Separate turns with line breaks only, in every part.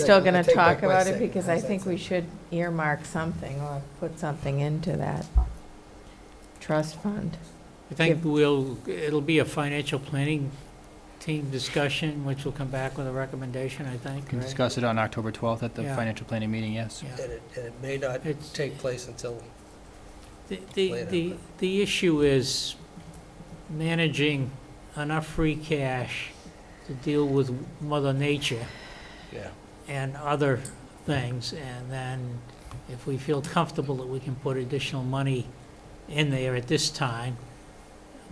Still
I
going to
take back
talk
my
about it
second.
because I think we should earmark something or put something into that trust fund.
I think we'll, it'll be a financial planning team discussion, which will come back with a recommendation, I think,
Can
right?
discuss it on October 12th at the
Yeah.
financial planning meeting, yes.
Yeah.
And it, and it may not
It's-
take place until,
The- The,
later,
the, the issue is managing enough free cash to deal with mother nature
yeah.
and other things, and then if we feel comfortable that we can put additional money in there at this time,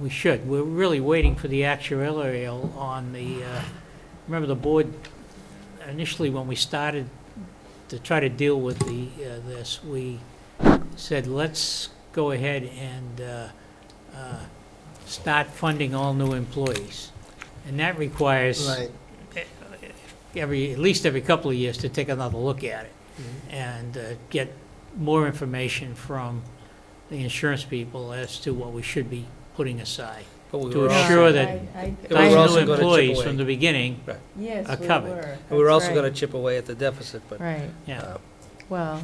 we should. We're really waiting for the actuarial on the, uh, remember the board, initially when we started to try to deal with the, uh, this, we said, let's go ahead and uh, uh, start funding all new employees. And that requires every, at least every couple of years to take another look at it
Mm-hmm.
and uh, get more information from the insurance people as to what we should be putting aside.
But we
To
were
assure
also,
Sure that-
I- I-
And we're
Those
I-
also
new
gonna chip
employees
away.
from the beginning, are
Yes, we
covered.
were.
we were
That's
also
right.
gonna chip away at the deficit, but.
Right,
yeah.
uh,
well,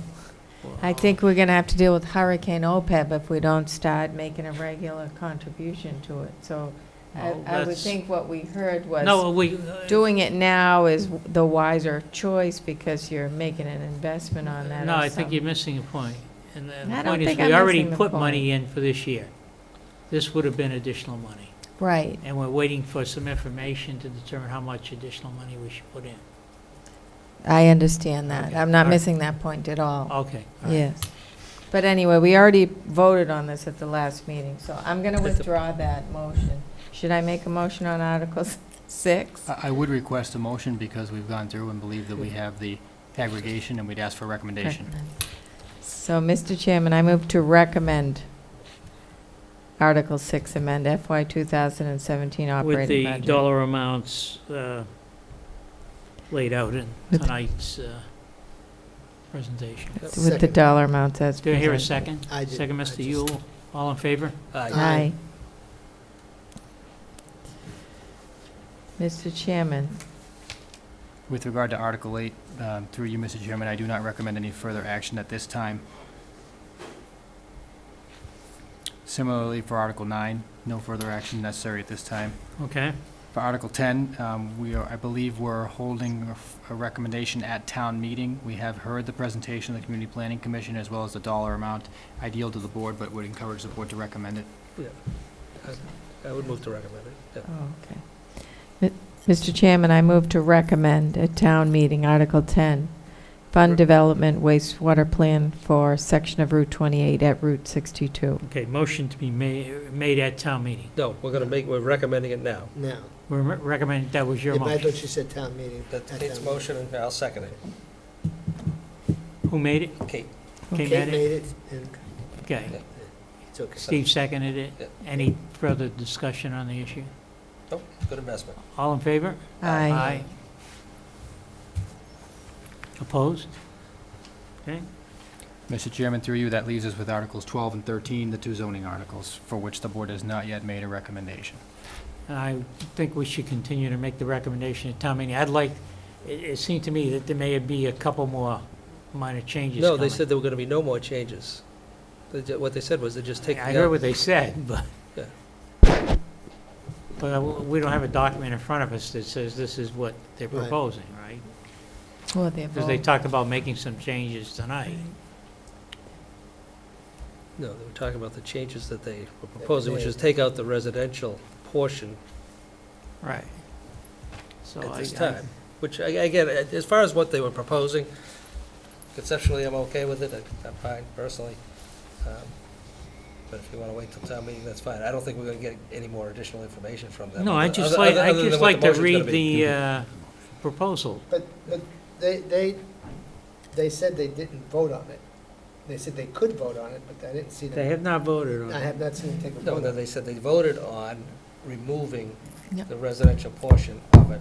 I think we're going to have to deal with Hurricane OPEB if we don't start making a regular contribution to it. So I
Well,
I would
that's-
think what we heard was.
No, we, uh,
doing it now is the wiser choice because you're making an investment on that.
no,
or
I think
something.
you're missing a point. And the
I don't
point is,
think
we
I'm
already
missing the
put money in for this year. This would have been additional money.
Right.
And we're waiting for some information to determine how much additional money we should put in.
I understand that.
Okay,
I'm not
all right.
missing that point at all.
Okay. all right.
Yes. But anyway, we already voted on this at the last meeting, so I'm going to
the-
withdraw that motion. Should I make a motion on Article 6?
Uh,
I I would request a motion because we've gone through and believe that we have the aggregation and we'd ask for a recommendation.
So, Mr. Chairman, I move to recommend Article 6 amend FY 2017
With
operating
the
budget.
dollar amounts uh, laid out in
With-
tonight's uh, presentation.
With the dollar amounts as
Do I hear a
presented.
second? Second, Mr. Yule, all in favor?
Aye.
Aye. Mr. Chairman,
With regard to Article 8, um, through you, Mr. Chairman, I do not recommend any further action at this time. Similarly, for Article 9, no further action necessary at this time.
Okay,
For Article 10, um, we are, I believe we're holding a f- a recommendation at town meeting. We have heard the presentation of the Community Planning Commission as well as the dollar amount ideal to the board, but would encourage the board to recommend it.
I would move to recommend it. yeah.
oh, okay. Mi- Mr. Chairman, I move to recommend at town meeting, Article 10, Fund Development Wastewater Plan for section of Route 28 at Route 62.
okay, motion to be ma- made at town meeting.
No, we're gonna make, we're recommending it now.
No.
We're re- recommending, that was your
Yeah, but I thought
motion.
you said town meeting.
That's
At
Kate's
town meeting.
motion, and I'll second it.
Who made it?
Kate,
Kate
Kate
made it?
made it, and
Okay,
it's okay.
Steve seconded it.
Yeah.
Any further discussion on the issue?
Oh, good investment.
All in favor?
Aye.
Opposed? Okay,
Mr. Chairman, through you, that leaves us with Articles 12 and 13, the two zoning articles, for which the board has not yet made a recommendation.
And I think we should continue to make the recommendation at town meeting. I'd like, it, it seemed to me that there may be a couple more minor changes
No, they
coming.
said there were gonna be no more changes. They ju- What they said was they're just taking
I heard
out,
what they said, but,
uh, Yeah.
but I- we don't have a document in front of us that says this is what they're
Right.
proposing, right?
Well, they're
Because they talked about making some changes tonight.
no, they were talking about the changes that they were proposing, which is take out the residential portion
Right. So
at
I,
this
I-
time, which, I- again, a- as far as what they were proposing, conceptually, I'm okay with it, I- I'm fine personally. Um, But if you want to wait till town meeting, that's fine. I don't think we're going to get any more additional information from them.
no, I just
other-
like,
other-
I
other than
just
what
like to
motion's gonna
read
be.
the uh, proposal.
But, but they, they, they said they didn't vote on it. They said they could vote on it, but I didn't see
They
them.
have not voted on
I
it.
have not seen them take a
No,
vote
no,
on it.
they said they voted on removing
Yeah.
the residential portion of it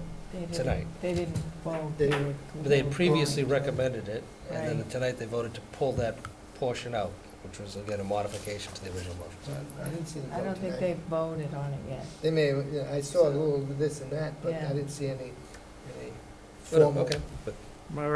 tonight.
They didn't vote.
They-
But They had previously recommended it, and then
Right.
tonight they voted to pull that portion out, which was, again, a modification to the original motion. So I-
I didn't see them
I
vote
don't think
tonight.
they voted on it yet.
They may, yeah, I saw a little this and that, but
Yeah.
I didn't see any, any
Well,
formal
Okay. but-
All